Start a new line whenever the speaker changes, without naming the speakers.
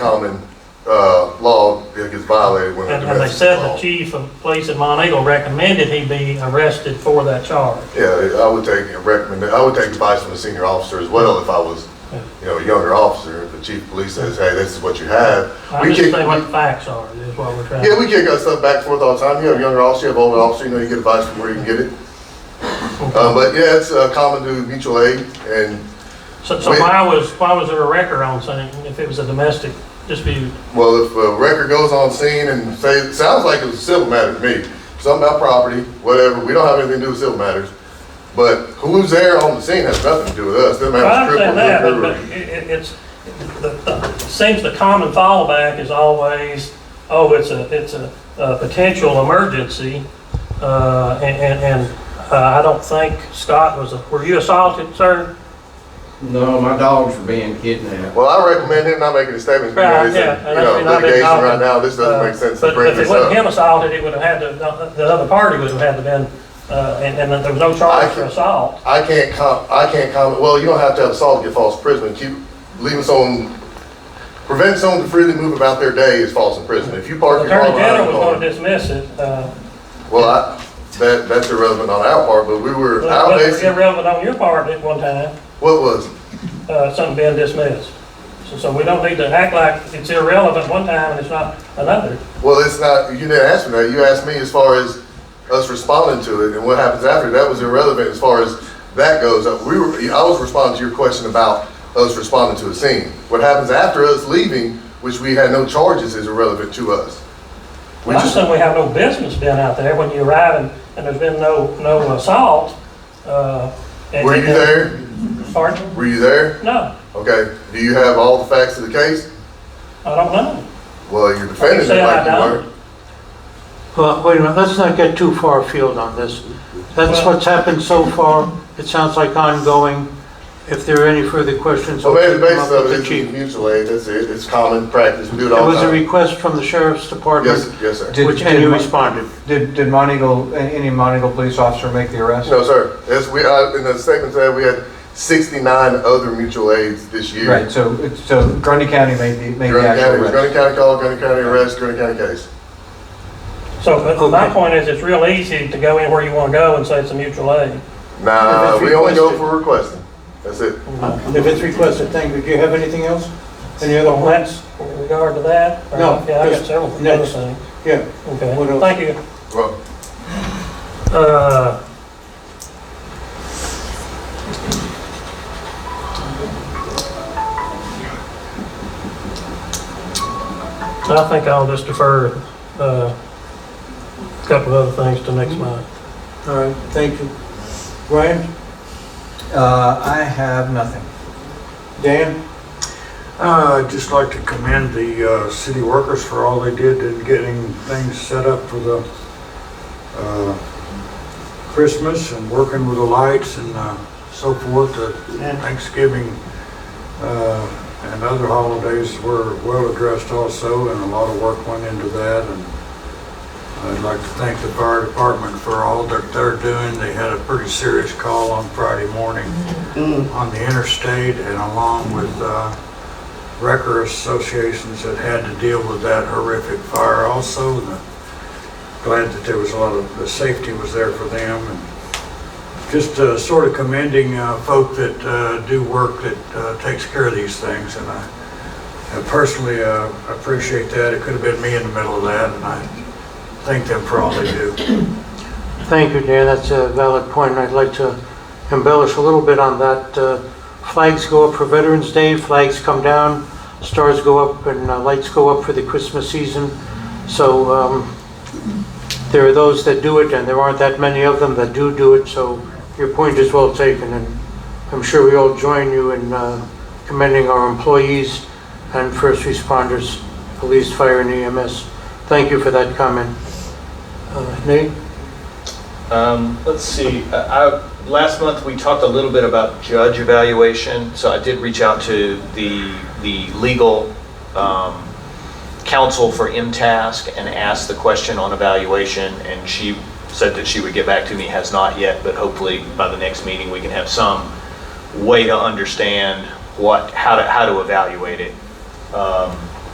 common uh, law that gets violated when a
And and they
domestic
said the
involved.
chief of police in Mount Eagle recommended he be arrested for that charge.
Yeah, I would take a recommend, I would take advice from a senior officer as well if I was, you know, a younger officer. If the chief of police says, hey, this is what you have.
I'm
We
just
kick,
saying what the facts are, is what we're trying
yeah,
to.
we kick us up back and forth all the time. You have a younger officer, you have an older officer, you know, you get advice from where you can get it. Uh, But yeah, it's uh, common to mutual aid and,
So, so why was, why was there a record on something if it was a domestic dispute?
well, if a record goes on scene and say, it sounds like it was a civil matter to me. Something about property, whatever, we don't have anything to do with civil matters. But who's there on the scene has nothing to do with us. Doesn't matter
I
if it's
understand that,
crippled,
but,
or-
but it, it- it's, the, the, it seems the common fallback is always, oh, it's a, it's a, a potential emergency. Uh, and, and, and, uh, I don't think Scott was, a- were you assaulted, sir?
No, my dogs were being kidnapped.
Well, I recommend him not making a statement,
Right,
because,
yeah,
you
and that's
know,
been- I've been
litigation
talking,
right now, this doesn't
Uh,
make sense to
But
bring
if it
this
wasn't
up.
him assaulted, it would have had to, the other party would have had to been, uh, and, and that there was no
I
charge for
can-
assault.
I can't com, I can't comment, well, you don't have to have assault to get false imprisonment, keep, leaving someone, preventing someone to freely move about their day is false imprisonment. If you park your car
Attorney General
behind the
was gonna
car,
dismiss it, uh,
well, I, that, that's irrelevant on our part, but we were, our
but it was
basic,
irrelevant on your part at one time,
what was, it?
uh, something being dismissed. So, so we don't need to act like it's irrelevant one time and it's not another.
well, it's not, you didn't ask me that, you asked me as far as us responding to it and what happens after, that was irrelevant as far as that goes. Uh, We were, I was responding to your question about us responding to a scene. What happens after us leaving, which we had no charges, is irrelevant to us. We
Well, I'm
just,
saying we have no business being out there when you arrive and, and there's been no, no assault, uh. and-
were you there?
Pardon?
Were you there?
No,
Okay, do you have all the facts of the case?
I don't know.
Well, you're defending
said,
it
I
like you
don't.
were.
Well, wait a minute, let's not get too far afield on this. That's
Well-
what's happened so far. It sounds like ongoing. If there are any further questions,
So
I'll
maybe
take
the
them up
basis of
with the
it is
chief.
mutual aid, that's it, it's common practice, we do it
There
all
was
the
a
time.
request from the sheriff's
Yes,
department,
yes, sir.
Did-
which, and you
did-
responded.
Did, did Montegoal, any Montegoal police officer make the arrest?
No, sir, as we, uh, in the statement today, we had sixty-nine other mutual aids this year.
Right, so, it's- so Grundy County made the, made the
Grundy County,
actual
it was
arrest.
Grundy County call, Grundy County arrest, Grundy County case.
So, but my
Okay.
point is, it's real easy to go anywhere you wanna go and say it's a mutual aid.
Nah,
If it's
we only go
requested.
for requesting. That's it.
If it's requested, thank you. Do you have anything else? Any other
Well,
plans?
that's in regard to that. or-
No,
Yeah, I got
just
several other
next.
things.
Yeah. What
Okay,
else?
thank you.
Well,
Uh, I think I'll just defer, uh, a couple of other things to next month.
All right, thank you. Brian,
Uh, I have nothing.
Dan,
Uh, I'd just like to commend the uh, city workers for all they did in getting things set up for the uh, Christmas and working with the lights and uh, so forth. The Thanksgiving uh, and other holidays were well addressed also, and a lot of work went into that. And I'd like to thank the fire department for all that they're doing. They had a pretty serious call on Friday morning on the interstate and along with uh, wrecker associations that had to deal with that horrific fire also. and I'm Glad that there was a lot of, the safety was there for them. and Just uh, sort of commending uh, folk that uh, do work that uh, takes care of these things. And I I personally uh, appreciate that. It could have been me in the middle of that, and I thank them for all they do.
Thank you, Dan, that's a valid point, and I'd like to embellish a little bit on that. Uh, Flags go up for Veterans Day, flags come down, stars go up, and uh, lights go up for the Christmas season. So um, there are those that do it, and there aren't that many of them that do do it, so your point is well taken, and I'm sure we all join you in uh, commending our employees and first responders, police, fire, and EMS. Thank you for that comment. Uh, Nate?
Um, let's see, I, I, last month we talked a little bit about judge evaluation, so I did reach out to the, the legal, um, counsel for MTask and asked the question on evaluation, and she said that she would get back to me, has not yet, but hopefully by the next meeting, we can have some way to understand what, how to, how to evaluate it. Um,